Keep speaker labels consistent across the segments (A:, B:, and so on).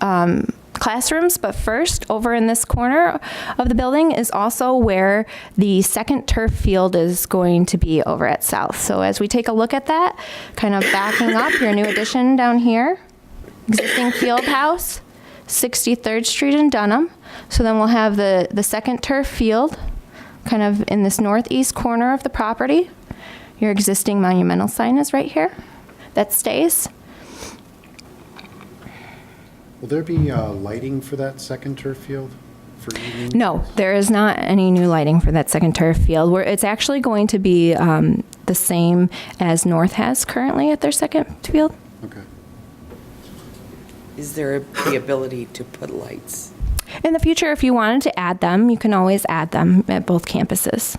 A: um, classrooms. But first, over in this corner of the building is also where the second turf field is going to be over at South. So as we take a look at that, kind of backing up your new addition down here, existing field house, 63rd Street in Dunham. So then we'll have the, the second turf field, kind of in this northeast corner of the property. Your existing monumental sign is right here. That stays.
B: Will there be uh, lighting for that second turf field for evening?
A: No, there is not any new lighting for that second turf field. Where it's actually going to be um, the same as North has currently at their second field.
B: Okay.
C: Is there the ability to put lights?
A: In the future, if you wanted to add them, you can always add them at both campuses.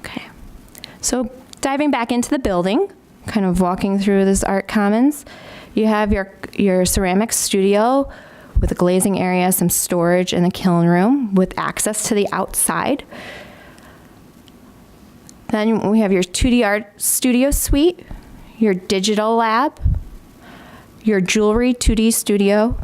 A: Okay. So diving back into the building, kind of walking through this art commons, you have your your ceramics studio with a glazing area, some storage, and a kiln room with access to the outside. Then we have your 2D art studio suite, your digital lab, your jewelry 2D studio,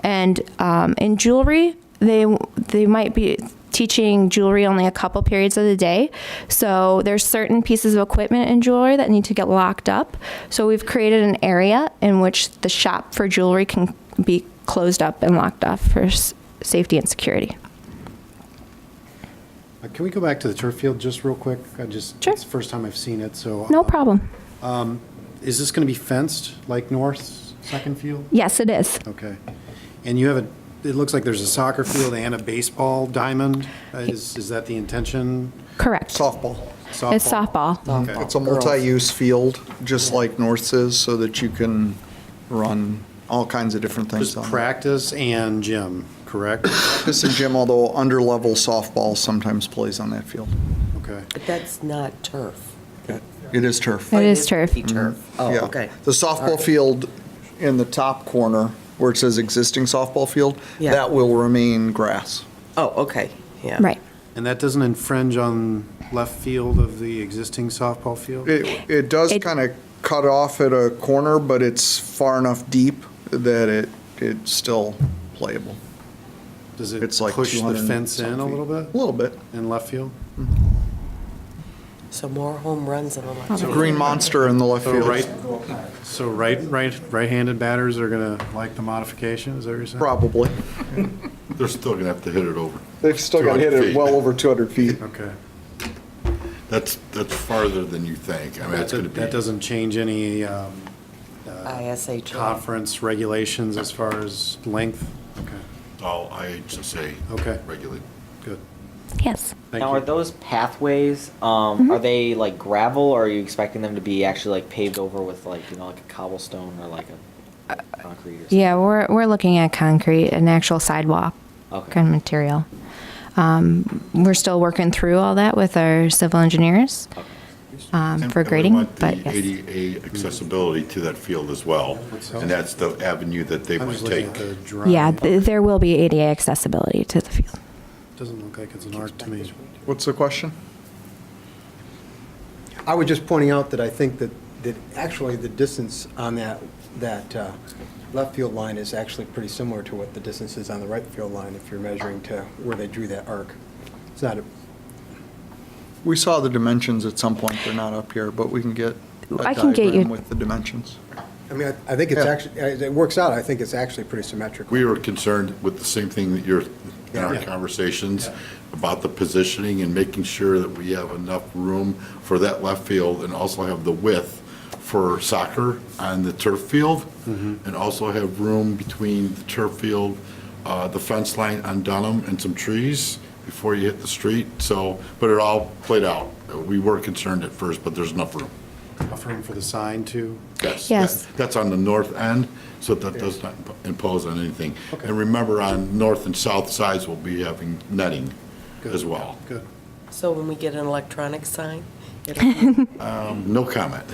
A: and um, in jewelry they they might be teaching jewelry only a couple periods of the day. So there's certain pieces of equipment in jewelry that need to get locked up. So we've created an area in which the shop for jewelry can be closed up and locked off for s- safety and security.
B: Uh, Can we go back to the turf field just real quick? I just,
A: Sure.
B: it's the first time I've seen it, so.
A: No
B: uh,
A: problem.
B: Is this going to be fenced like North's second field?
A: Yes, it is.
B: Okay. And you have a, it looks like there's a soccer field and a baseball diamond. Uh, Is, is that the intention?
A: Correct.
D: Softball.
A: It's softball.
B: Okay.
D: It's a multi-use field, just like North's is, so that you can run all kinds of different things
B: Just
D: on it.
B: practice and gym, correct?
D: Practice and gym, although under-level softball sometimes plays on that field.
B: Okay.
C: But that's not turf.
D: It is turf.
A: It
C: But
A: is
C: it
A: turf.
C: would be turf. Oh,
D: Mm-hmm. Yeah.
C: okay.
D: The softball field in the top corner, where it says existing softball field,
C: Yeah.
D: that will remain grass.
C: Oh, okay, yeah.
A: Right.
B: And that doesn't infringe on left field of the existing softball field?
D: It, it does
A: It-
D: kind of cut off at a corner, but it's far enough deep that it, it's still playable.
B: Does it
D: It's like
B: push the
D: 200 and
B: fence in a
D: some feet.
B: little
D: A
B: bit
D: little bit.
B: in left field?
C: So more home runs than electric.
D: It's a green monster in the left
B: So
D: field.
B: Oh, right, so right, right, right-handed batters are going to like the modification, is that what you're saying?
D: Probably.
E: They're still gonna have to hit it over.
D: They've still
E: got hit at well 200 feet.
D: over 200 feet.
B: Okay.
E: That's, that's farther than you think. I mean,
B: That
E: it's gonna be.
B: that doesn't change any um,
C: ISHR.
B: conference regulations as far as length? Okay,
E: All IHSA.
B: Okay.
E: Regulate.
B: good.
A: Yes.
B: Thank
F: Now, are
B: you.
F: those pathways, um, are they like gravel or are you expecting them to be actually like paved over with like, you know, like a cobblestone or like a concrete or something?
A: Yeah, we're, we're looking at concrete, an actual sidewalk
F: Okay.
A: kind of material. Um, we're still working through all that with our civil engineers um,
E: And-
A: for
E: and we
A: grading,
E: want
A: but yes.
E: The ADA accessibility to that field as well, and that's the avenue that they
B: I'm
E: might
B: just looking at
E: take.
B: the drawing.
A: Yeah, th- there will be ADA accessibility to the field.
B: Doesn't look like it's an arc to me.
D: What's the question?
G: I was just pointing out that I think that, that actually the distance on that, that uh, left field line is actually pretty similar to what the distance is on the right field line if you're measuring to where they drew that arc. It's not, a-
D: We saw the dimensions at some point. They're not up here, but we can get
A: I
D: a
A: can get you-
D: diagram with the dimensions.
G: I mean, I I think it's
D: Yeah.
G: actually, as it works out, I think it's actually pretty symmetrical.
E: We were concerned with the same thing that you're, in our
G: Yeah.
E: conversations, about the positioning and making sure that we have enough room for that left field and also have the width for soccer on the turf field.
G: Mm-hmm.
E: And also have room between the turf field, uh, the fence line on Dunham and some trees before you hit the street. So, but it all played out. We were concerned at first, but there's enough room.
B: Enough room for the sign, too?
E: Yes.
A: Yes.
E: that- That's on the north end, so that does not imp- impose on anything. And remember, on north and south sides, we'll be having netting as well.
B: Good.
C: So when we get an electronic sign, it'll be-
E: No comment.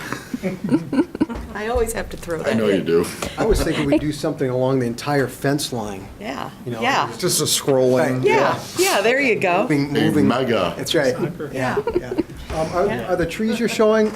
C: I always have to throw that
E: I
C: in.
E: know you do.
G: I was thinking we'd do something along the entire fence line,
C: Yeah,
G: You know,
C: yeah,
D: It's just a scrolling.
C: yeah, yeah, there you go.
G: moving,
E: A
G: moving.
E: mega.
G: That's right, yeah, yeah. Um, Are are the trees you're showing